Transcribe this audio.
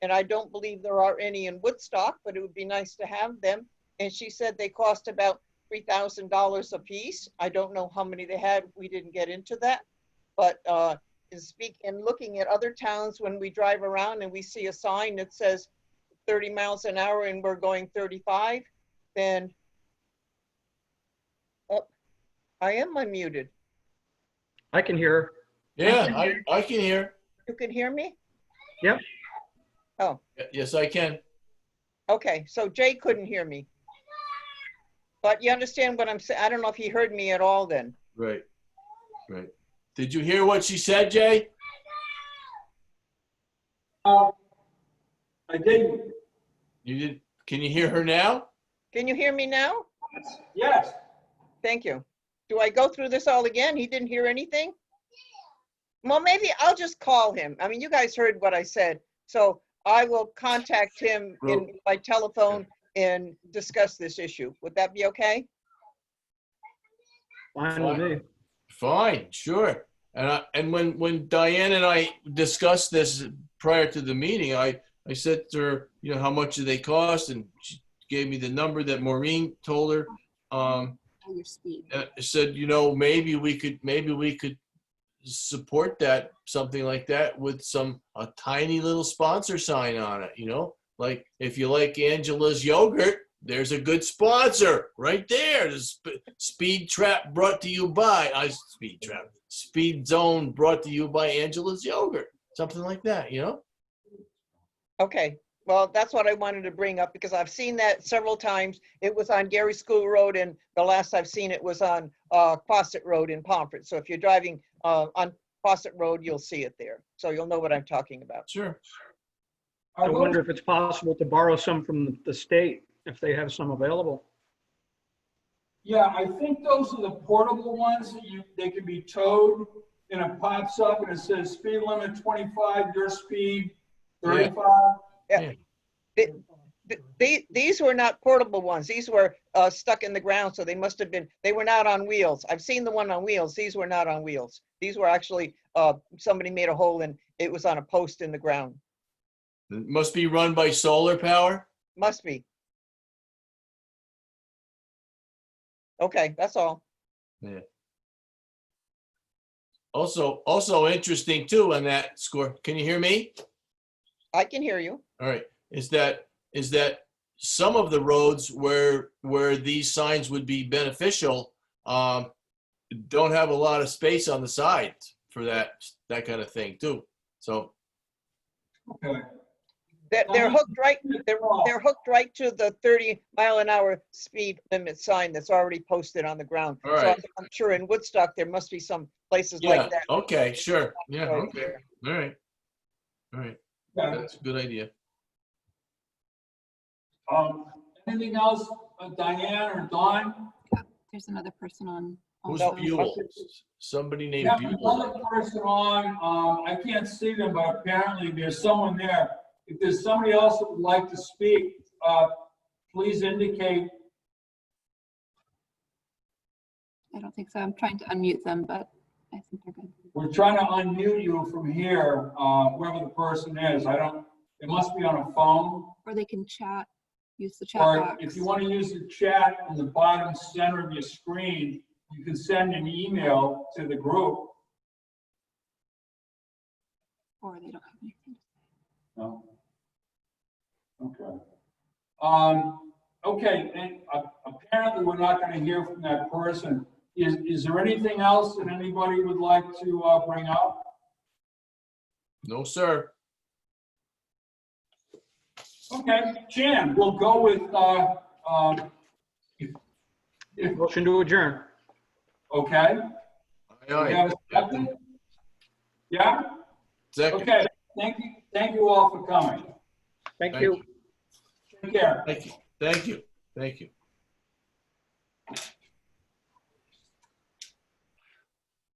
And I don't believe there are any in Woodstock, but it would be nice to have them. And she said they cost about three thousand dollars apiece. I don't know how many they had. We didn't get into that. But uh, in speak, in looking at other towns, when we drive around and we see a sign that says thirty miles an hour and we're going thirty-five, then oh, I am unmuted. I can hear her. can Yeah, I, I can hear. You can hear me? Yep. Oh, Y- Yes, I can. okay, so Jay couldn't hear me. But you understand what I'm saying? I don't know if he heard me at all then. Right, right. Did you hear what she said, Jay? I did, You did, can you hear her now? Can you hear me now? yes. Thank you. Do I go through this all again? He didn't hear anything? Well, maybe I'll just call him. I mean, you guys heard what I said. So I will contact him in, by telephone and discuss this issue. Would that be okay? Fine with me. Fine, sure. And I, and when, when Diane and I discussed this prior to the meeting, I, I said to her, you know, how much do they cost? And she gave me the number that Maureen told her. Um, on your speed. uh, said, you know, maybe we could, maybe we could support that, something like that with some, a tiny little sponsor sign on it, you know? Like, if you like Angela's yogurt, there's a good sponsor right there. The sp- Speed Trap brought to you by, I, Speed Trap, Speed Zone brought to you by Angela's yogurt, something like that, you know? Okay, well, that's what I wanted to bring up because I've seen that several times. It was on Gary School Road and the last I've seen it was on uh, Quasit Road in Pomfret. So if you're driving uh, on Quasit Road, you'll see it there. So you'll know what I'm talking about. Sure. I wonder if it's possible to borrow some from the state, if they have some available. Yeah, I think those are the portable ones that you, they can be towed and it pops up and it says speed limit twenty-five, your speed Yeah. thirty-five. Th- the- These were not portable ones. These were uh, stuck in the ground, so they must have been, they were not on wheels. I've seen the one on wheels. These were not on wheels. These were actually, uh, somebody made a hole and it was on a post in the ground. It must be run by solar power. Must be. Okay, that's all. Also, also interesting too on that score. Can you hear me? I can hear you. All right, is that, is that some of the roads where, where these signs would be beneficial, um, don't have a lot of space on the side for that, that kind of thing too. So, Okay. They're, they're Um, hooked right, they're, they're hooked right to the 30 mile an hour speed limit sign that's already posted on the ground. So All right. I'm- I'm sure in Woodstock, there must be some places yeah, like that. okay, sure, yeah, Right okay, there. all right. All right, Yeah. that's a good idea. Um, anything else, uh, Diane or Don? There's another person on. Um, Who's also. Buell? Somebody named Yeah, Buell. another person on, um, I can't see them, but apparently there's someone there. If there's somebody else that would like to speak, uh, please indicate. I don't think so. I'm trying to unmute them, but I think they're good. We're trying to unmute you from here, uh, whoever the person is. I don't, it must be on a phone. Or they can chat, use the chat Or box. if you want to use the chat on the bottom center of your screen, you can send an email to the group. Or they don't have anything. No. Okay. Um, okay, and uh, apparently we're not gonna hear from that person. Is, is there anything else that anybody would like to, uh, bring up? No, sir. Okay, Jan, we'll go with, uh, um, Motion to adjourn. okay? Aye, We aye. have a second? Yeah, Second, okay, thank you, thank you all for coming. Thank Thank you. you. Take care. thank you, thank you, thank you.